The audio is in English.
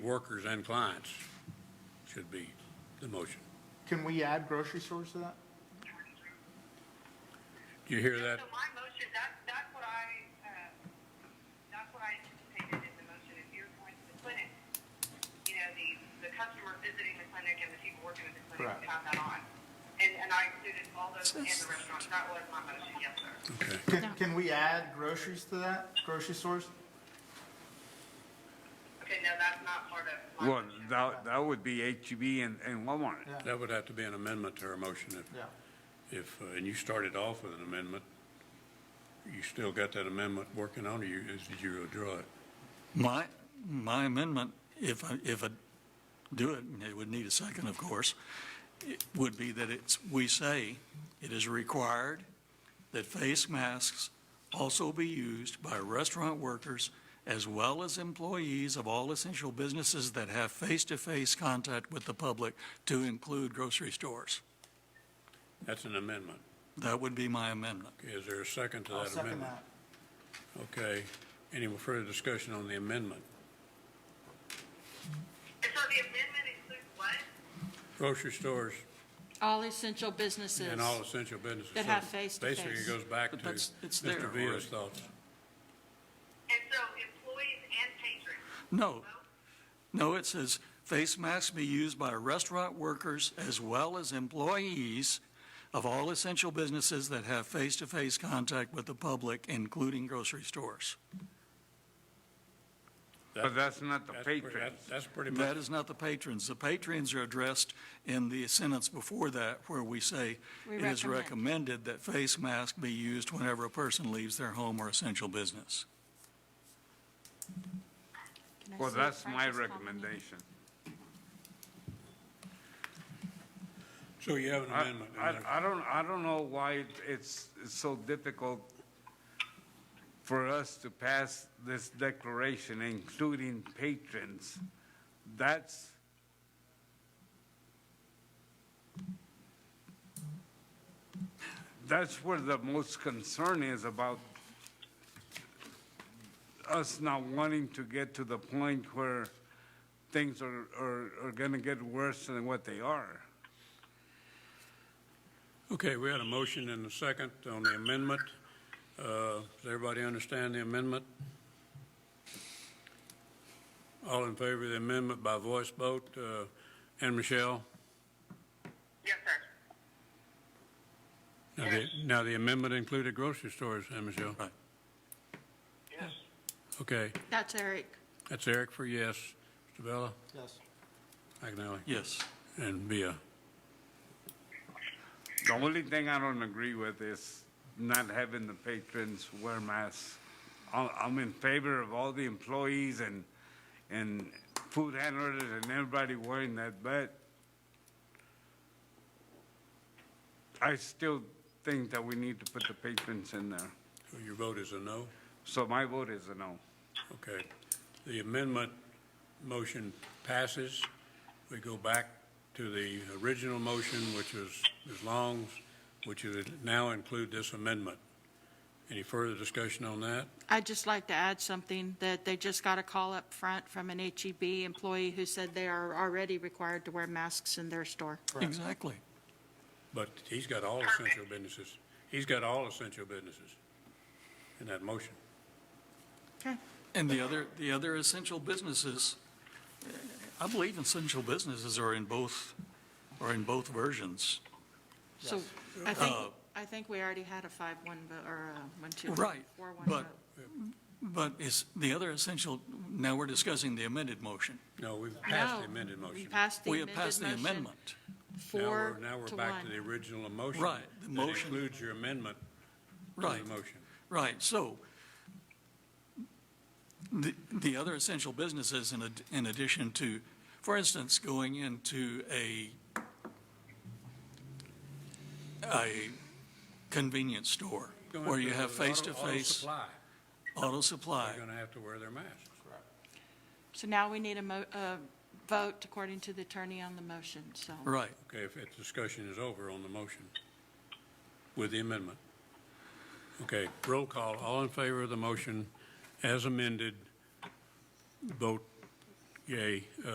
workers and clients should be the motion. Can we add grocery stores to that? Do you hear that? So my motion, that, that's what I, uh, that's what I anticipated in the motion, if you're going to the clinic, you know, the, the customer visiting the clinic and the people working at the clinic Correct. have that on. And, and I included all those in the restaurants, that was my motion, yes, sir. Okay. Can, No. can we add groceries to that, grocery stores? Okay, no, that's not part of my Well, motion. that, that would be HEB and, and Walmart. Yeah. That would have to be an amendment to her motion if, Yeah. if, uh, and you started off with an amendment. You still got that amendment working on you, is did you withdraw it? My, my amendment, if I, if I do it, and it would need a second, of course, it would be that it's, we say, it is required that face masks also be used by restaurant workers as well as employees of all essential businesses that have face-to-face contact with the public to include grocery stores. That's an amendment. That would be my amendment. Okay, Is there a second to I'll that second amendment? that. Okay. Any more further discussion on the amendment? And so the amendment includes what? Grocery stores All essential businesses. and all essential businesses. That have So face-to-face. Basically, it goes back to But that's- it's there Mr. Villa's already. thoughts. And so employees and patrons, No, both? No, it says face masks be used by restaurant workers as well as employees of all essential businesses that have face-to-face contact with the public, including grocery stores. But that's not the That's pretty- patrons. that's- That's pretty much That is not the patrons. The patrons are addressed in the sentence before that where we say We it is recommend. recommended that face masks be used whenever a person leaves their home or essential business. Can I Well, see a that's my practice problem? recommendation. So you have an I, amendment. I I don't, I don't know why it- it's it's so difficult for us to pass this declaration, including patrons. That's, that's where the most concern is about us not wanting to get to the point where things are, are, are going to get worse than what they are. Okay, we had a motion and a second on the amendment. Uh, Does everybody understand the amendment? All in favor of the amendment by voice vote, uh, and Michelle? Yes, sir. Now the- Now, the amendment included grocery stores, and Michelle? Right. Yes. Okay, That's Eric. that's Eric for yes. Mr. Bella, Yes. McNally, Yes. and Bia. The only thing I don't agree with is not having the patrons wear masks. I'm I'm in favor of all the employees and, and food handlers and everybody wearing that, but I still think that we need to put the patrons in there. So Your vote is a no? So my vote is a no. Okay. The amendment motion passes. We go back to the original motion, which was Ms. Long's, which would now include this amendment. Any further discussion on that? I'd just like to add something, that they just got a call up front from an HEB employee who said they are already required to wear masks in their store. Exactly. But he's got all essential businesses. He's got all essential businesses in that motion. Okay. And the other, the other essential businesses, I believe essential businesses are in both, are in both versions. So I think, Uh, I think we already had a five-one, or a one-two. Right, Four-one but- vote. But is the other essential, now we're discussing the amended motion. No, we've passed the No, amended We motion. passed the We amended have motion. passed the amendment. Now Four we're, now to we're back to the one. original motion. Right, the motion- That includes your amendment to Right, the motion. right. So the, the other essential businesses in, ad- in addition to, for instance, going into a, a convenience store Going where you to have the auto- auto face-to-face supply, auto supply. They're going to have to wear their masks. So now we need a mo, a vote according to the attorney on the motion, so. Right. Okay, if if discussion is over on the motion with the amendment. Okay, roll call, all in favor of the motion as amended, vote uh, yay.